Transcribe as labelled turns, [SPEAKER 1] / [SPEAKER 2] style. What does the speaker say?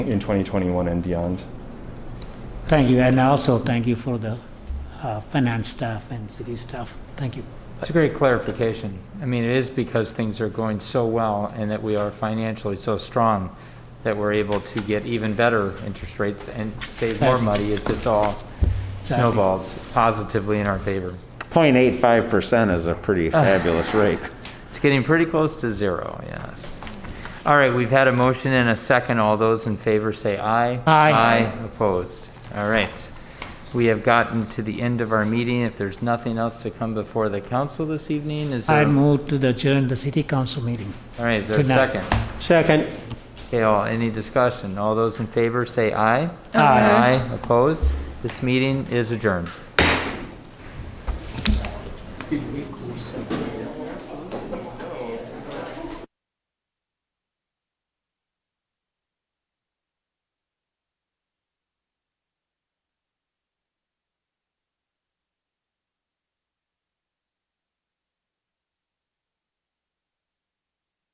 [SPEAKER 1] in 2021 and beyond.
[SPEAKER 2] Thank you, and also thank you for the uh, finance staff and city staff. Thank you.
[SPEAKER 3] It's a great clarification. I mean, it is because things are going so well and that we are financially so strong that we're able to get even better interest rates and save more money. It's just all snowballs positively in our favor.
[SPEAKER 4] 0.85% is a pretty fabulous rate.
[SPEAKER 3] It's getting pretty close to zero, yes. All right, we've had a motion and a second. All those in favor say aye.
[SPEAKER 2] Aye.
[SPEAKER 3] Aye, opposed. All right. We have gotten to the end of our meeting. If there's nothing else to come before the council this evening, is
[SPEAKER 2] I
[SPEAKER 3] there? All
[SPEAKER 2] move to the adjourn the city council meeting.
[SPEAKER 3] right, is there a
[SPEAKER 2] tonight.
[SPEAKER 3] second?
[SPEAKER 5] Second.
[SPEAKER 3] Okay, all, any discussion? All those in favor say aye.
[SPEAKER 2] Aye.
[SPEAKER 3] Aye, opposed? This meeting is adjourned.